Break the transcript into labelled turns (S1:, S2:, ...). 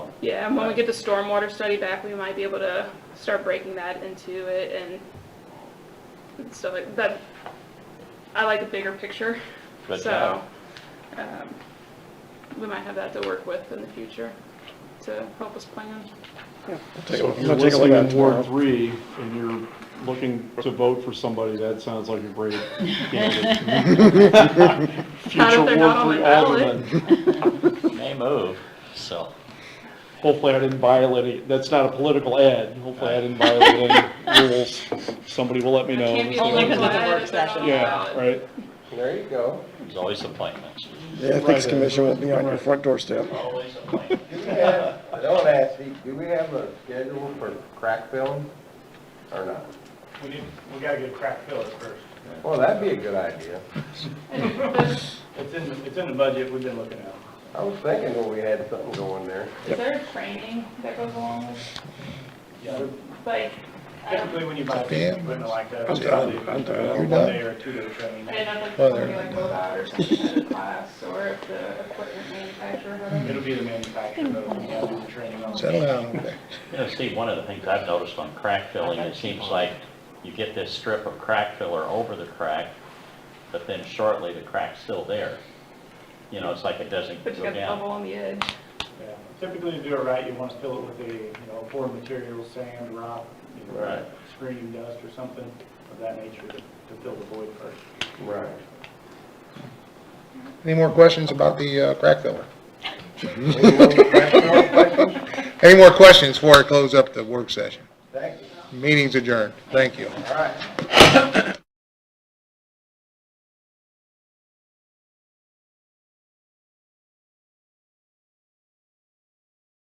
S1: Yeah, and when we get the stormwater study back, we might be able to start breaking that into it and- and stuff like that. I like a bigger picture,
S2: Good
S1: so,
S2: job.
S1: um, we might have that to work with in the future to help us plan.
S3: So if you're
S4: I'll take a look
S3: listening
S4: at it
S3: in
S4: tomorrow.
S3: Ward Three and you're looking to vote for somebody, that sounds like a great candidate.
S1: Not
S3: Future
S1: if they're not on
S3: Ward
S1: my
S3: Three
S1: ballot.
S3: Alderman.
S2: May move, so.
S3: Hopefully I didn't violate it. That's not a political ad. Hopefully I didn't violate any rules. Somebody will let me
S1: I
S3: know.
S1: can't be
S3: So-
S1: a
S5: Only 'cause of the
S1: glad
S5: work
S1: if they're not on
S5: session.
S1: the
S3: Yeah,
S1: ballot.
S3: right.
S6: There you go.
S2: There's always appointments.
S4: The Ethics Commission won't be on your front doorstep.
S2: Always appointments.
S6: Do we have, I don't ask, you, do we have a schedule for crack filling or not?
S7: We need, we gotta get a crack fill at first.
S6: Well, that'd be a good idea.
S7: It's in, the- it's in the budget, we've been looking at it.
S6: I was thinking when we had something going there.
S1: Is there a training that goes along with,
S7: Yeah,
S1: like, I don't,
S7: Typically, when you buy a piece of equipment like that,
S4: I'm
S7: it's
S4: done.
S7: probably
S4: I'm done.
S7: a
S4: You're
S7: one
S4: done.
S7: day or two day training.
S1: I don't know if
S4: Well,
S1: it's
S4: there-
S1: something like Lobot or something at a class, or if the equipment manufacturer, whatever.
S7: It'll be the manufacturer that will have to do the training on.
S4: Settle
S8: uh,
S4: down.
S2: You know, Steve, one of the things I've noticed on crack filling, it seems like you get this strip of crack filler over the crack, but then shortly the crack's still there. You know, it's like it doesn't
S1: But you
S2: go
S1: got the
S2: down.
S1: bubble on the edge.
S7: Yeah. Typically, to do it right, you wanna fill it with a, you know, poor material, sand, rock, you
S2: Right.
S7: know, screening dust or something of that nature to to fill the void first.
S6: Right.
S8: Any more questions about the uh, crack filler?
S6: Any more crack filling questions?
S8: Any more questions before I close up the work session?
S6: Thank you.
S8: Meeting's adjourned. Thank you.
S6: All right.